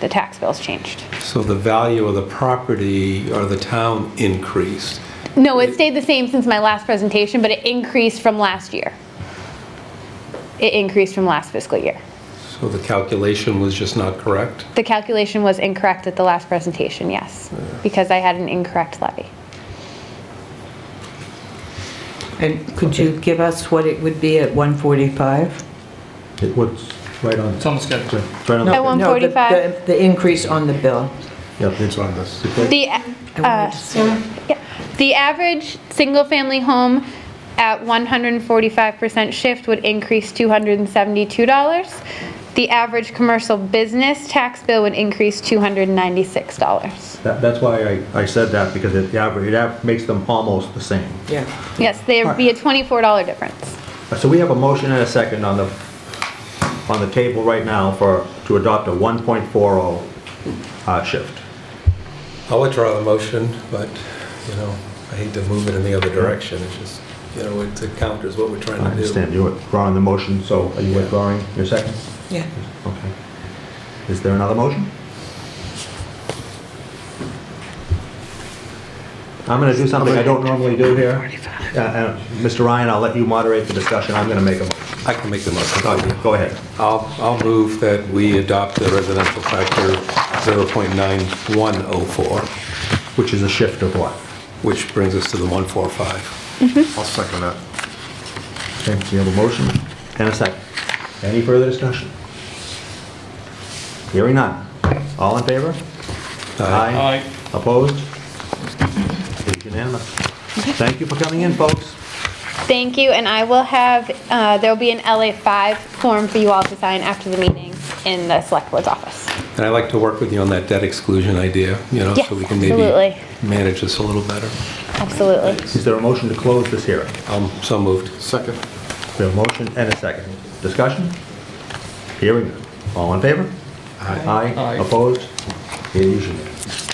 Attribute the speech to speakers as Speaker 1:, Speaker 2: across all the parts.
Speaker 1: the tax bills changed.
Speaker 2: So the value of the property or the town increased.
Speaker 1: No, it stayed the same since my last presentation, but it increased from last year. It increased from last fiscal year.
Speaker 2: So the calculation was just not correct.
Speaker 1: The calculation was incorrect at the last presentation, yes, because I had an incorrect levy.
Speaker 3: And could you give us what it would be at 145?
Speaker 4: It was right on.
Speaker 5: It's on the schedule.
Speaker 4: It's right on the-
Speaker 1: At one- 145.
Speaker 3: No, the- the- The increase on the bill.
Speaker 4: Yep, it's on this.
Speaker 1: The,
Speaker 3: I
Speaker 1: uh,
Speaker 3: wanted to see it.
Speaker 1: yeah, the average single-family home at 145% shift would increase $272. The average commercial business tax bill would increase $296.
Speaker 4: That- That's why I, I said that, because it, aver- it av- makes them almost the same.
Speaker 3: Yeah.
Speaker 1: Yes, there'd be a $24 difference.
Speaker 4: Uh, So we have a motion and a second on the, on the table right now for, to adopt a 1.40 uh, shift.
Speaker 2: I'll withdraw the motion, but, you know, I hate to move it in the other direction. It's just, you know, it it counters what we're trying to
Speaker 4: I
Speaker 2: do.
Speaker 4: understand, you're withdrawing the motion, so are you withdrawing your second?
Speaker 3: Yeah.
Speaker 4: Okay. Is there another motion? I'm going to do something I don't normally do here. Uh, uh, Mr. Ryan, I'll let you moderate the discussion, I'm going to make a motion.
Speaker 2: I can make the motion.
Speaker 4: Oh, Go ahead.
Speaker 2: I'll, I'll move that we adopt the residential factor 0.9104,
Speaker 4: Which is a shift of what?
Speaker 2: which brings us to the 145.
Speaker 6: I'll second that.
Speaker 4: Okay, so you have a motion and a second. Any further discussion? Hearing none. All in favor?
Speaker 5: Aye.
Speaker 4: Opposed? It's unanimous. Thank you for coming in, folks.
Speaker 1: Thank you, and I will have, uh, there'll be an LA5 form for you all to sign after the meeting in the Select Board's office.
Speaker 2: And I'd like to work with you on that debt exclusion idea, you know,
Speaker 1: Yes,
Speaker 2: so we can maybe
Speaker 1: absolutely.
Speaker 2: manage this a little better.
Speaker 1: Absolutely.
Speaker 4: Is there a motion to close this hearing?
Speaker 2: Um, So moved.
Speaker 6: Second.
Speaker 4: We have a motion and a second. Discussion? Hearing none. All in favor? Aye.
Speaker 5: Aye.
Speaker 4: Opposed? It is unanimous.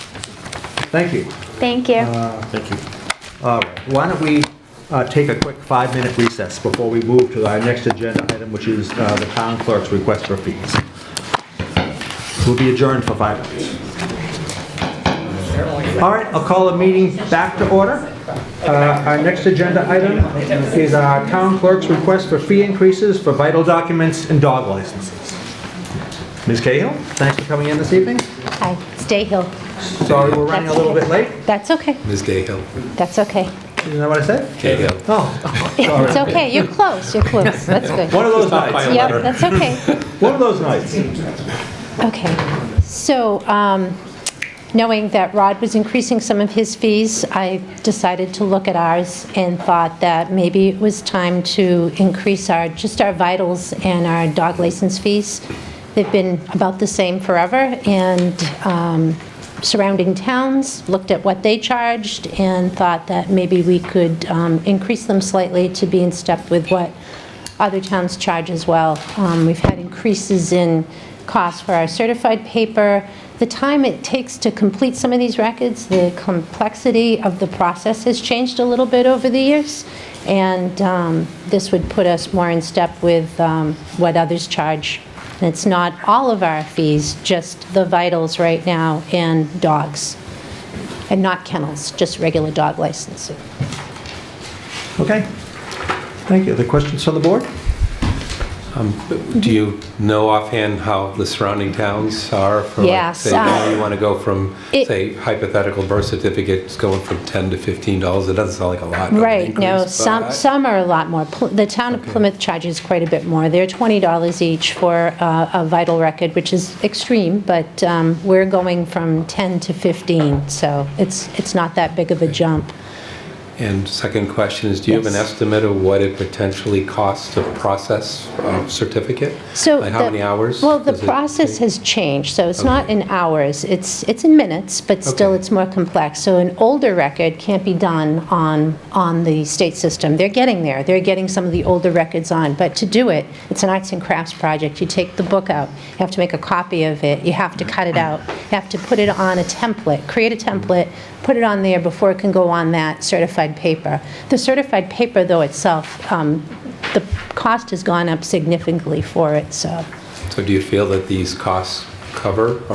Speaker 4: Thank you.
Speaker 1: Thank you.
Speaker 4: Thank you. All right, why don't we uh, take a quick five-minute recess before we move to our next agenda item, which is uh, the town clerk's request for fees. We'll be adjourned for five minutes. All right, I'll call the meeting back to order. Uh, Our next agenda item is our town clerk's request for fee increases for vital documents and dog licenses. Ms. Cahill, thanks for coming in this evening.
Speaker 7: Hi, it's Dayhill.
Speaker 4: Sorry we're running a little bit late.
Speaker 7: That's okay,
Speaker 2: Ms. Cahill.
Speaker 7: that's okay.
Speaker 4: Isn't that what I said?
Speaker 2: Cahill.
Speaker 4: Oh,
Speaker 7: It's okay, you're close, you're close, that's good.
Speaker 4: one of those nights.
Speaker 7: Yep, that's okay,
Speaker 4: One of those nights.
Speaker 7: okay. So, um, knowing that Rod was increasing some of his fees, I decided to look at ours and thought that maybe it was time to increase our, just our vitals and our dog license fees. They've been about the same forever, and um, surrounding towns looked at what they charged and thought that maybe we could um, increase them slightly to be in step with what other towns charge as well. Um, We've had increases in costs for our certified paper, the time it takes to complete some of these records, the complexity of the process has changed a little bit over the years, and um, this would put us more in step with um, what others charge. And it's not all of our fees, just the vitals right now and dogs, and not kennels, just regular dog licensing.
Speaker 4: Okay. Thank you. The questions from the board?
Speaker 2: Do you know offhand how the surrounding towns are for, like,
Speaker 7: Yes,
Speaker 2: say,
Speaker 7: uh,
Speaker 2: now you want to go from,
Speaker 7: it-
Speaker 2: say, hypothetical birth certificates going from 10 to $15? It doesn't sound like a lot. of an
Speaker 7: Right, no,
Speaker 2: increase,
Speaker 7: some,
Speaker 2: but-
Speaker 7: some are a lot more. Pl- The town of Plymouth charges quite a bit more. They're $20 each for uh, a vital record, which is extreme, but um, we're going from 10 to 15, so it's, it's not that big of a jump.
Speaker 2: And second question is, do you have an
Speaker 7: Yes.
Speaker 2: estimate of what it potentially costs to process a certificate?
Speaker 7: So
Speaker 2: Like how
Speaker 7: the-
Speaker 2: many hours?
Speaker 7: Well, the
Speaker 2: does it
Speaker 7: process
Speaker 2: take?
Speaker 7: has changed, so it's not
Speaker 2: Okay.
Speaker 7: in hours, it's, it's in minutes, but still
Speaker 2: Okay.
Speaker 7: it's more complex. So an older record can't be done on, on the state system. They're getting there, they're getting some of the older records on, but to do it, it's an arts and crafts project. You take the book out, you have to make a copy of it, you have to cut it out, you have to put it on a template, create a template, put it on there before it can go on that certified paper. The certified paper, though, itself, um, the cost has gone up significantly for it, so.
Speaker 2: So do you feel that these costs cover